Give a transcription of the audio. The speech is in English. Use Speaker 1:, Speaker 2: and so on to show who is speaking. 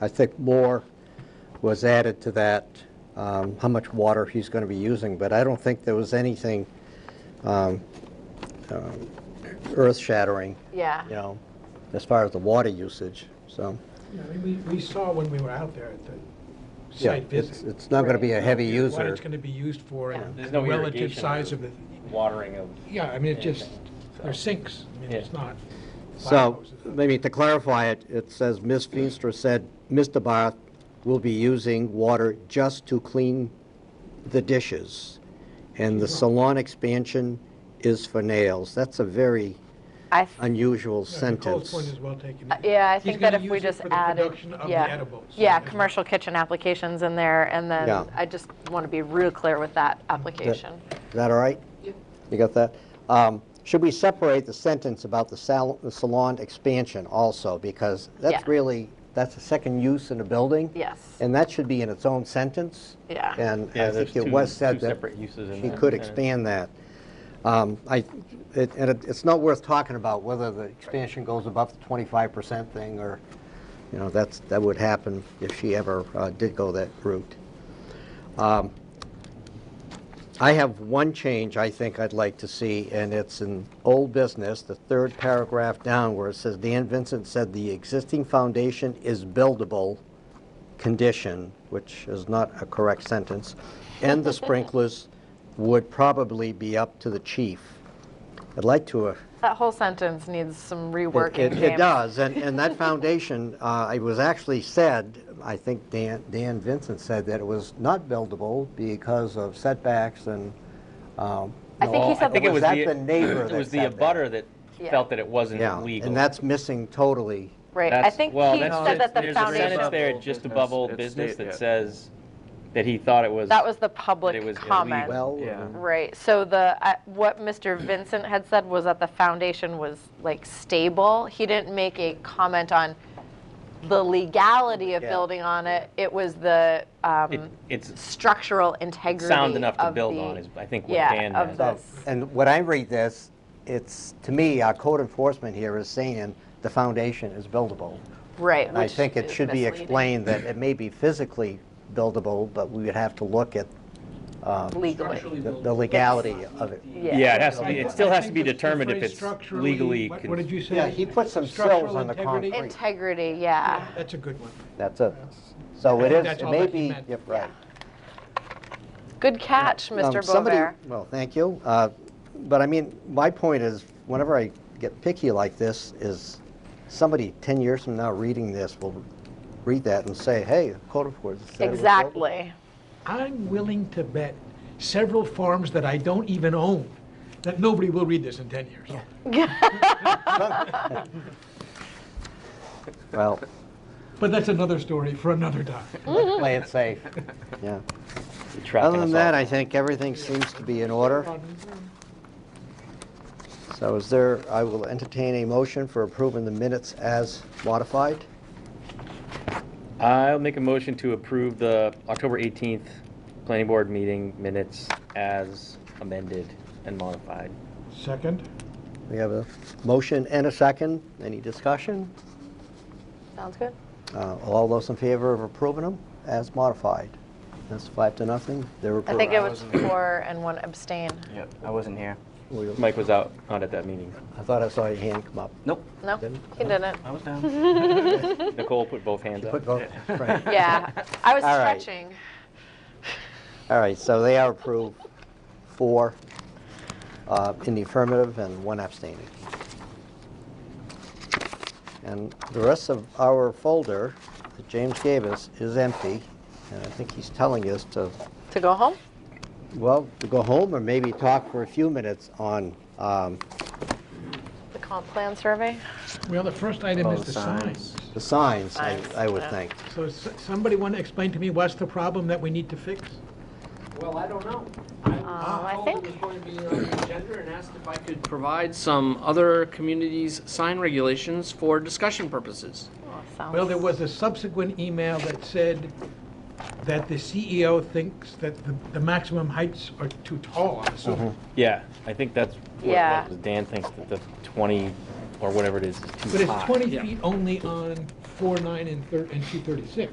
Speaker 1: I think more was added to that, um, how much water he's going to be using, but I don't think there was anything um, um, earth-shattering,
Speaker 2: Yeah.
Speaker 1: you know, as far as the water usage, so.
Speaker 3: Yeah, I mean, we, we saw when we were out there at the
Speaker 1: yeah,
Speaker 3: site
Speaker 1: it's-
Speaker 3: visit.
Speaker 1: It's not going to be a heavy
Speaker 3: What
Speaker 1: user.
Speaker 3: it's gonna be used for
Speaker 2: Yeah.
Speaker 3: and
Speaker 4: There's
Speaker 3: the
Speaker 4: no
Speaker 3: relative
Speaker 4: irrigation
Speaker 3: size
Speaker 4: or
Speaker 3: of it.
Speaker 4: watering of.
Speaker 3: Yeah, I mean, it just,
Speaker 4: anything, so.
Speaker 3: they're sinks, I mean, it's
Speaker 4: Yeah.
Speaker 3: not.
Speaker 1: So,
Speaker 3: firehouses.
Speaker 1: maybe to clarify it, it says, Ms. Feenstra said, Mr. Barth will be using water just to clean the dishes, and the salon expansion is for nails. That's a very
Speaker 2: I, th-
Speaker 1: unusual
Speaker 3: Yeah, Nicole's
Speaker 1: sentence.
Speaker 3: point is well taken.
Speaker 2: uh, yeah, I
Speaker 3: He's
Speaker 2: think that
Speaker 3: gonna
Speaker 2: if we
Speaker 3: use it
Speaker 2: just
Speaker 3: for the
Speaker 2: added,
Speaker 3: production of the
Speaker 2: yeah,
Speaker 3: edibles, so
Speaker 2: yeah,
Speaker 3: that's not-
Speaker 2: commercial kitchen applications in there, and
Speaker 1: Yeah.
Speaker 2: then I just want to be real clear with that application.
Speaker 1: Is that all right? You got that? Um, Should we separate the sentence about the sal- the salon expansion also? Because
Speaker 2: Yeah.
Speaker 1: that's really, that's a second use in a building.
Speaker 2: Yes,
Speaker 1: And that should be in its own sentence.
Speaker 2: Yeah.
Speaker 1: And I
Speaker 4: Yeah,
Speaker 1: think
Speaker 4: there's
Speaker 1: it
Speaker 4: two-
Speaker 1: was said
Speaker 4: two
Speaker 1: that
Speaker 4: separate uses in
Speaker 1: she
Speaker 4: that,
Speaker 1: could
Speaker 4: yeah.
Speaker 1: expand that. Um, I, it- and it- it's not worth talking about whether the expansion goes above the 25% thing or, you know, that's, that would happen if she ever uh, did go that route. Um, I have one change I think I'd like to see, and it's in old business, the third paragraph down where it says, Dan Vincent said the existing foundation is buildable condition, which is not a correct sentence, and the sprinklers would probably be up to the chief. I'd like to. uh,
Speaker 2: that whole sentence needs some
Speaker 1: It
Speaker 2: reworking.
Speaker 1: it- it
Speaker 2: James.
Speaker 1: does, and, and that foundation, uh, it was actually said, I think Dan, Dan Vincent said that it was not buildable because of setbacks and, um.
Speaker 2: I think he
Speaker 1: no,
Speaker 2: said I think it
Speaker 1: Was that the neighbor that
Speaker 4: It was the
Speaker 1: said that?
Speaker 4: abutter that
Speaker 2: Yeah.
Speaker 4: felt that it wasn't
Speaker 1: Yeah,
Speaker 4: legal.
Speaker 1: and that's missing totally.
Speaker 2: Right, I
Speaker 4: That's-
Speaker 2: think
Speaker 4: well,
Speaker 2: he
Speaker 4: that's-
Speaker 2: said that the
Speaker 4: There's a sentence
Speaker 2: foundation,
Speaker 4: there, just above old
Speaker 5: It's
Speaker 4: business,
Speaker 5: state-
Speaker 4: that
Speaker 5: yeah.
Speaker 4: says that he thought it was.
Speaker 2: that was the
Speaker 4: it
Speaker 2: public
Speaker 4: was
Speaker 2: comment.
Speaker 4: illegal.
Speaker 1: Well,
Speaker 5: Yeah.
Speaker 2: Right, so the, uh, what Mr. Vincent had said was that the foundation was like stable. He didn't make a comment on the legality of
Speaker 1: Yeah.
Speaker 2: building on it. It was the um,
Speaker 4: It- It's
Speaker 2: structural integrity
Speaker 4: sound enough to
Speaker 2: of
Speaker 4: build
Speaker 2: the-
Speaker 4: on is, I think, what
Speaker 2: yeah,
Speaker 4: Dan
Speaker 2: of
Speaker 4: meant.
Speaker 2: the-
Speaker 1: so- uh, and when I read this, it's, to me, our code enforcement here is saying the foundation is buildable.
Speaker 2: Right.
Speaker 1: I
Speaker 2: which
Speaker 1: think it
Speaker 2: is
Speaker 1: should be
Speaker 2: misleading.
Speaker 1: explained that it may be physically buildable, but we would have to look at um,
Speaker 2: Legally.
Speaker 1: the the legality of it.
Speaker 4: Yeah, it has to be,
Speaker 3: I-
Speaker 4: it still
Speaker 3: I
Speaker 4: has to
Speaker 3: think
Speaker 4: be
Speaker 3: it's the
Speaker 4: determined if
Speaker 3: phrase
Speaker 4: it's
Speaker 3: structurally-
Speaker 4: legally.
Speaker 3: What
Speaker 4: con-
Speaker 3: what did you say?
Speaker 1: Yeah, he put some
Speaker 3: Structural
Speaker 1: cells on the
Speaker 3: integrity?
Speaker 1: concrete.
Speaker 2: Integrity, yeah.
Speaker 3: That's a good one.
Speaker 1: That's it. So
Speaker 3: I
Speaker 1: it
Speaker 3: think
Speaker 1: is,
Speaker 3: that's
Speaker 1: it
Speaker 3: all
Speaker 1: may
Speaker 3: that he
Speaker 1: be,
Speaker 3: meant.
Speaker 1: yep, right.
Speaker 2: Good catch,
Speaker 1: Um,
Speaker 2: Mr.
Speaker 1: somebody-
Speaker 2: Bover.
Speaker 1: Well, thank you. Uh, But I mean, my point is, whenever I get picky like this, is somebody 10 years from now reading this will read that and say, hey, code enforcement said it was buildable."
Speaker 2: Exactly.
Speaker 3: I'm willing to bet several farms that I don't even own, that nobody will read this in 10 years.
Speaker 1: Well,
Speaker 3: But that's another story for another time.
Speaker 2: Mm-hmm.
Speaker 1: let's play it safe, yeah.
Speaker 4: You're trapping
Speaker 1: Other than
Speaker 4: us
Speaker 1: that,
Speaker 4: all.
Speaker 1: I think everything seems to be in order. So is there, I will entertain a motion for approving the minutes as modified.
Speaker 4: I'll make a motion to approve the October 18th Planning Board meeting minutes as amended and modified.
Speaker 3: Second?
Speaker 1: We have a motion and a second. Any discussion?
Speaker 2: Sounds good.
Speaker 1: Uh, All those in favor of approving them as modified? That's five to nothing. They're
Speaker 2: I
Speaker 1: approved.
Speaker 2: think it
Speaker 5: I
Speaker 2: was
Speaker 5: wasn't-
Speaker 2: four and one abstain.
Speaker 5: Yep, I wasn't here.
Speaker 1: Will you-
Speaker 4: Mike was out, not at that meeting.
Speaker 1: I thought I saw your hand come up.
Speaker 5: Nope,
Speaker 2: No,
Speaker 1: Didn't?
Speaker 2: he didn't.
Speaker 5: I was down.
Speaker 4: Nicole put both hands
Speaker 1: You
Speaker 4: up.
Speaker 1: put both- right.
Speaker 2: Yeah, I was
Speaker 1: All right.
Speaker 2: stretching.
Speaker 1: All right, so they are approved, four uh, in the affirmative and one abstaining. And the rest of our folder that James gave us is empty, and I think he's telling us to,
Speaker 2: To go home?
Speaker 1: well, to go home or maybe talk for a few minutes on, um,
Speaker 2: The comp plan survey? Oh,
Speaker 3: Well, the first item
Speaker 5: Oh,
Speaker 3: is the
Speaker 5: signs.
Speaker 3: signs.
Speaker 1: the signs, I
Speaker 2: Signs,
Speaker 1: I would
Speaker 2: yeah.
Speaker 1: think.
Speaker 3: So s- somebody want to explain to me what's the problem that we need to fix?
Speaker 6: Well, I don't know.
Speaker 2: Um, I
Speaker 6: told
Speaker 2: think-
Speaker 6: it was going to be on the agenda and asked if I could provide some other communities' sign regulations for discussion purposes.
Speaker 2: Oh, sounds-
Speaker 3: Well, there was a subsequent email that said that the CEO thinks that the- the maximum heights are too tall, I'm assuming.
Speaker 4: Yeah, I think that's what it
Speaker 2: Yeah.
Speaker 4: was. Dan thinks that the 20 or whatever it is, is too high.
Speaker 3: But it's 20
Speaker 6: Yeah.
Speaker 3: feet only on 4, 9, and thir- and 236.